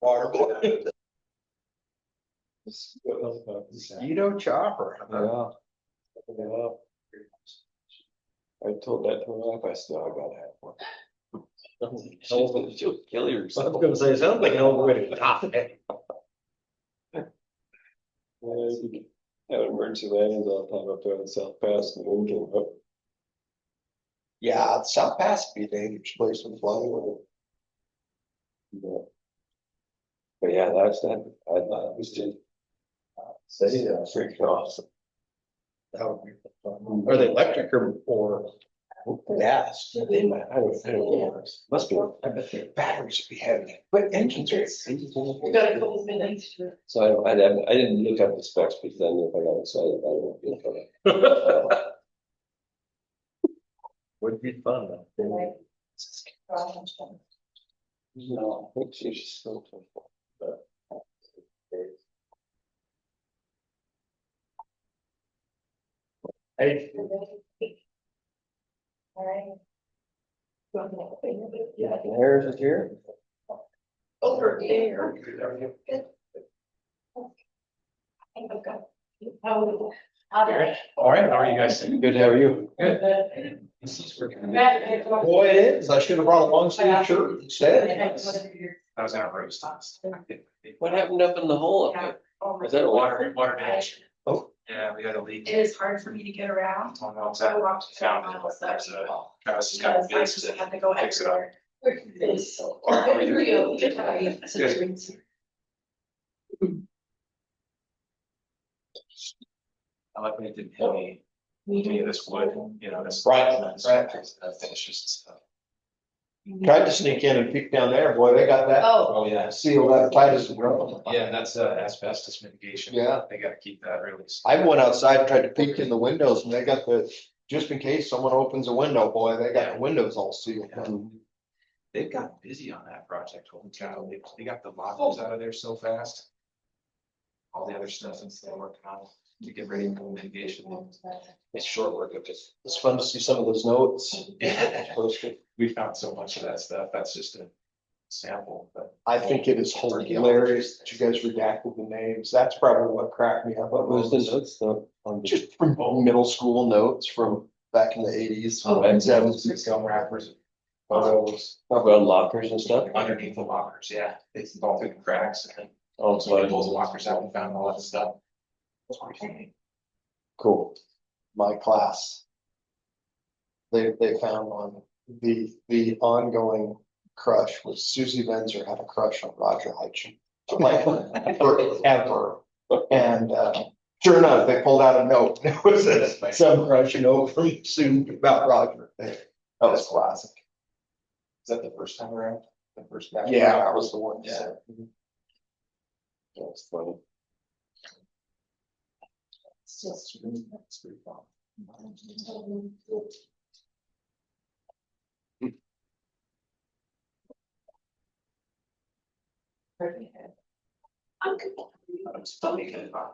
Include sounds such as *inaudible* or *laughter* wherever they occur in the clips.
water *laughs* block. Guido Chopper. Yeah. Yeah. I told that to my wife, I still, I gotta have one. You'll kill yourself. say, it sounds like an old way to top it. Yeah, you Had emergency landings all er the time up there in South Pass and the wind came up. Yeah, South Pass would be a dangerous place to fly over. But but yeah, that's that, I thought it was just. er Say, uh, Freaking awesome. that would be fun. Are they electric or, or? Yes, They might, I don't, I don't know, must be. I er bet their er batteries would be heavy, but engines are. We've er got a couple minutes to. So er I don't, I didn't, I didn't look up the specs because I knew if I got excited, I wouldn't be okay. *laughs* Would be fun though. Well, No, I think she's just so uh, tough. Hey, Harris is here? Over there. I think I've got. How, how did? all right, how are you guys? Good, how are you? Matt, it's what- Boy, it is. I should have brought a long sleeve shirt instead. Is I was gonna roast us. What happened up in the hole up there? Is that a water? Water, water damage. Oh. Yeah, we had a leak. It is hard for me to get around. On the outside. I walked Found several it. miles up. There's a, Travis has got Because it I fixed just and had to go fix it up. everywhere. It's so hard. Or- It's real, it's like- it's a dream. I like when it didn't hit me, any of this wood, you know, this. Right, this- right. uh, Finishes and stuff. Tried to sneak in and peek down there. Boy, they got that Oh, Oh, yeah. sealed up tight as a drum. Yeah, and that's uh, asbestos mitigation. Yeah. They gotta keep that released. I went outside, and tried to peek in the windows and they got the, just in case someone opens a window, boy, they got the windows all sealed. They've got busy on that project. Holy cow, they, they got the lockers out of there so fast. All the other stuff that's they're working on to get ready for mitigation. It's short work of this. It's fun to see some of *laughs* those notes. We found so much of that stuff. That's just a sample, but. I think it is hilarious that you guys redacted the names. That's probably what cracked me up. What was the notes though? on the- Just from middle school notes from back in the eighties Oh, and seventies. Gum wrappers. Photos Probably on lockers and stuff? underneath the lockers, yeah. It's all through the cracks and then Oh, somebody so pulls the lockers out and found all that stuff. That's pretty funny. Cool. My class. They, they found one, the, the ongoing crush was Susie Benzer had a crush on Roger *laughs* Hitchin. Like forever. And, uh, sure enough, they pulled out a note. *laughs* It was a- some crush note from Sue about Roger. That was classic. Is that the first time around? The first. batch? Yeah, that was the one. Yeah. Mm-hmm. that's funny. it's just. It's pretty fun. I'm good. But It's funny because. uh,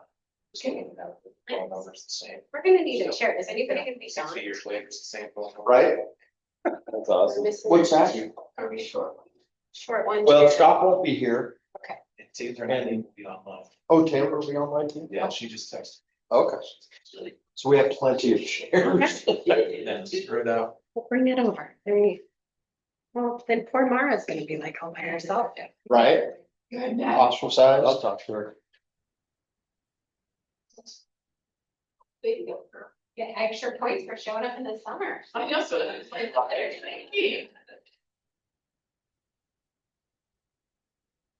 it's getting it out, the phone number's the same. We're gonna need a chair. Is anybody gonna be Six gone? years later, it's the same. phone number. Right? That's awesome. What's that? Are we sure? Short one. Well, chair. Scott won't be here. It's either not even be online. Oh, Taylor will be on my team? Yeah, she just texted. *laughs* Okay. So we have plenty of *laughs* shares. And threw it out. We'll Bring it over. There you. Well, then poor Mara's gonna be like all by herself. Right? Good night. Ostracized. I'll talk to her. Baby girl. Get extra points for showing up in the summer. I know, so it's like, oh, there's thank you.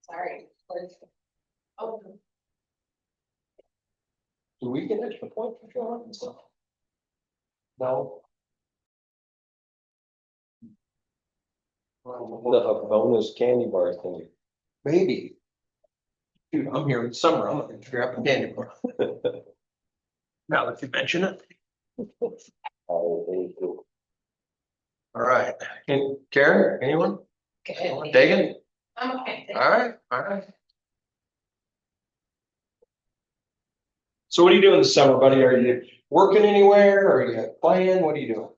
Sorry. Oh, Do we get extra point for showing up and stuff? No. The Havonas candy bar thing. Maybe. Dude, I'm here in summer. I'm gonna grab a *laughs* candy bar. Now that you mention it. Oh, they do. All right. Can Karen, anyone? Dagan? I'm okay. All right, all right. So what are you doing this summer, buddy? Are you working anywhere? Are you playing? What are you doing?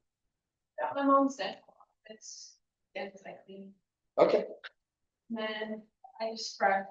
Got my mom's dead. It's, it's like, Okay, then I just brought